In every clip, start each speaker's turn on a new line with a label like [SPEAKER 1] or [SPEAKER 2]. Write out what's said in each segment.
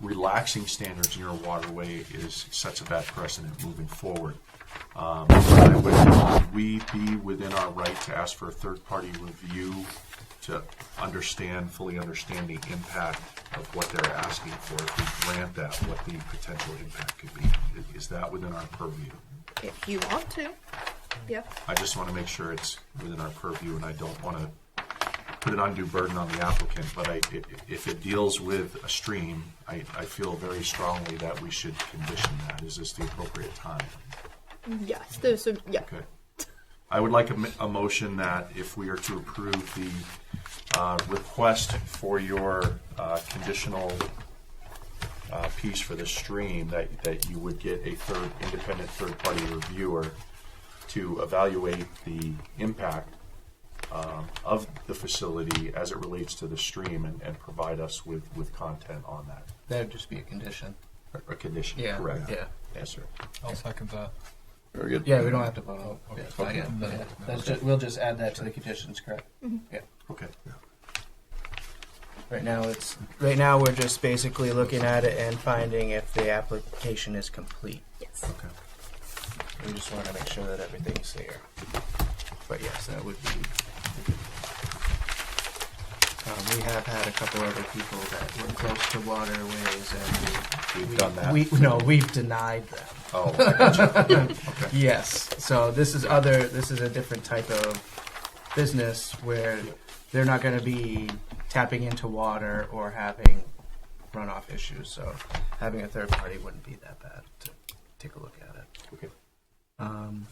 [SPEAKER 1] relaxing standards in your waterway is such a bad precedent moving forward. Um, I would- would We be within our right to ask for a third-party review to understand, fully understand the impact of what they're asking for, if we grant that, what the potential impact could be. I- Is that within our purview?
[SPEAKER 2] If you want to, yeah.
[SPEAKER 1] I just want to make sure it's within our purview, and I don't want to put an undue burden on the applicant, but I, i- if it deals with a stream, I, I feel very strongly that we should condition that. Is this the appropriate time?
[SPEAKER 2] Yes, there's a, yeah.
[SPEAKER 1] Okay. I would like a, m- a motion that if we are to approve the, uh, request for your, uh, conditional, uh, piece for the stream, that, that you would get a third, independent third-party reviewer to evaluate the impact, um, of the facility as it relates to the stream and, and provide us with, with content on that,
[SPEAKER 3] That'd just be a condition.
[SPEAKER 1] a condition,
[SPEAKER 3] Yeah,
[SPEAKER 1] correct?
[SPEAKER 3] yeah.
[SPEAKER 1] Yes, sir.
[SPEAKER 4] I'll second that.
[SPEAKER 5] Very good.
[SPEAKER 3] Yeah, we don't have to vote on it.
[SPEAKER 5] Okay.
[SPEAKER 3] Not yet, but yeah, that's ju- we'll just add that to the conditions, correct? Yeah.
[SPEAKER 1] Okay.
[SPEAKER 3] Right now, it's, right now, we're just basically looking at it and finding if the application is complete.
[SPEAKER 2] Yes.
[SPEAKER 1] Okay.
[SPEAKER 3] We just wanna make sure that everything's there. But yes, that would be. Um, we have had a couple other people that were close to waterways and we.
[SPEAKER 1] We've done that.
[SPEAKER 3] We, no, we've denied them.
[SPEAKER 1] Oh, I gotcha.
[SPEAKER 3] Yes. So this is other. This is a different type of business where they're not going to be tapping into water or having runoff issues. So having a third party wouldn't be that bad to take a look at it.
[SPEAKER 1] Okay.
[SPEAKER 3] Um,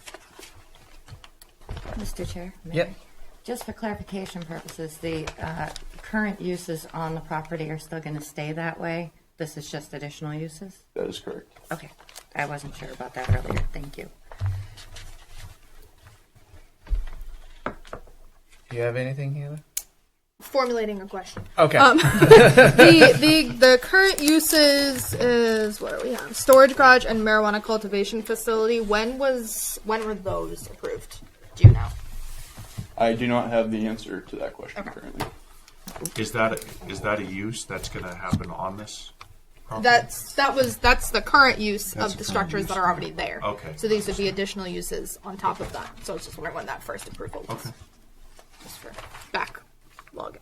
[SPEAKER 6] Mr. Chair? may
[SPEAKER 3] Yep.
[SPEAKER 6] I? Just for clarification purposes, the uh, current uses on the property are still going to stay that way? This is just additional uses?
[SPEAKER 5] That is correct.
[SPEAKER 6] Okay, I wasn't sure about that earlier, thank you.
[SPEAKER 3] do you have anything, Hannah?
[SPEAKER 2] Formulating a question.
[SPEAKER 3] Okay.
[SPEAKER 2] the, the the current uses is what are we on? Storage garage and marijuana cultivation facility. When was when were those approved? Do you know?
[SPEAKER 5] I do not have the answer to that question
[SPEAKER 2] Okay.
[SPEAKER 5] currently.
[SPEAKER 1] Is that, a- is that a use that's gonna happen on this? property?
[SPEAKER 2] That's that was that's the current use
[SPEAKER 1] That's
[SPEAKER 2] of
[SPEAKER 1] the
[SPEAKER 2] the
[SPEAKER 1] current
[SPEAKER 2] structures
[SPEAKER 1] use.
[SPEAKER 2] that are already there.
[SPEAKER 1] Okay.
[SPEAKER 2] So these would be additional uses on top of that. So I was just wondering when that first approval was.
[SPEAKER 1] Okay.
[SPEAKER 2] Just for back login.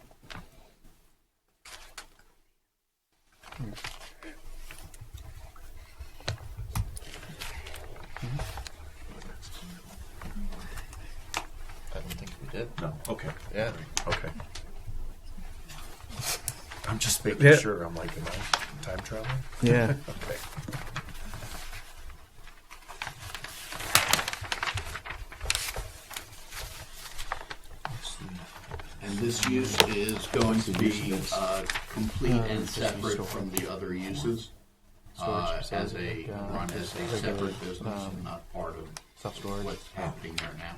[SPEAKER 3] I don't think we did.
[SPEAKER 1] No, okay,
[SPEAKER 3] Yeah.
[SPEAKER 1] okay. I'm just making
[SPEAKER 3] Yeah.
[SPEAKER 1] sure, I'm like, am I time traveling?
[SPEAKER 3] Yeah.
[SPEAKER 1] Okay.
[SPEAKER 7] And this use is going to be uh, complete and separate from the other uses uh, as a, run as a um, separate business and not part of what's happening there now.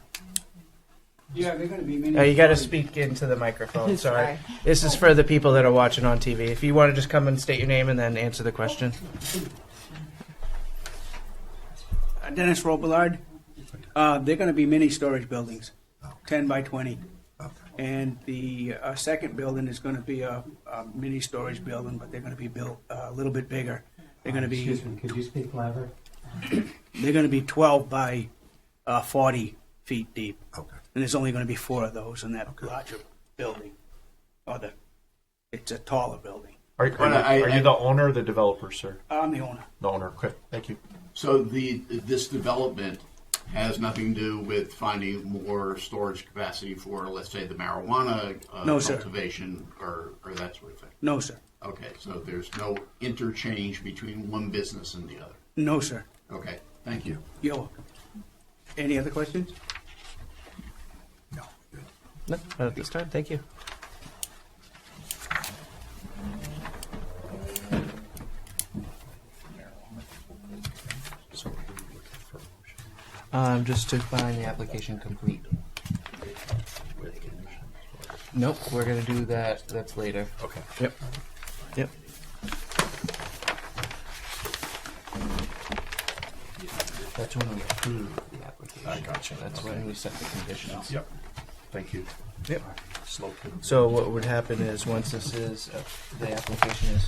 [SPEAKER 8] Yeah, they're gonna be many.
[SPEAKER 3] Now Uh, you got to speak into the microphone. Sorry.
[SPEAKER 6] Sorry.
[SPEAKER 3] This is for the people that are watching on TV. If you want to just come and state your name and then answer the question.
[SPEAKER 8] Uh, Dennis Robillard, uh, they're gonna be mini storage buildings, ten by twenty. And the, uh, second building is gonna be a, a mini storage building, but they're gonna be built uh, a little bit bigger. They're gonna be,
[SPEAKER 9] Excuse me, could you speak louder?
[SPEAKER 8] they're gonna be twelve by, uh, forty feet deep.
[SPEAKER 1] Okay.
[SPEAKER 8] And there's only gonna be four of those in that larger building, or the, it's a taller building.
[SPEAKER 1] Are, are you, are you the owner or the developer, sir?
[SPEAKER 8] I'm the owner.
[SPEAKER 1] The owner, okay, thank you.
[SPEAKER 7] So the, this development has nothing to do with finding more storage capacity for, let's say, the marijuana uh,
[SPEAKER 8] No, sir.
[SPEAKER 7] cultivation or, or that sort of thing.
[SPEAKER 8] No, sir.
[SPEAKER 7] Okay, so there's no interchange between one business and the other.
[SPEAKER 8] No, sir.
[SPEAKER 7] Okay, thank you.
[SPEAKER 8] You're welcome. Any other questions?
[SPEAKER 1] No, good.
[SPEAKER 3] No, not at this time. Thank you.
[SPEAKER 1] So we're looking for a motion
[SPEAKER 3] Um, just to find the application complete.
[SPEAKER 1] with conditions.
[SPEAKER 3] Nope, we're gonna do that. That's later.
[SPEAKER 1] Okay.
[SPEAKER 3] Yep. Yep. That's when we approve the application.
[SPEAKER 1] I gotcha.
[SPEAKER 3] That's
[SPEAKER 1] Okay.
[SPEAKER 3] when we set the conditions.
[SPEAKER 1] Yep, thank you.
[SPEAKER 3] Yep.
[SPEAKER 1] Slow.
[SPEAKER 3] So what would happen is once this is uh, the application is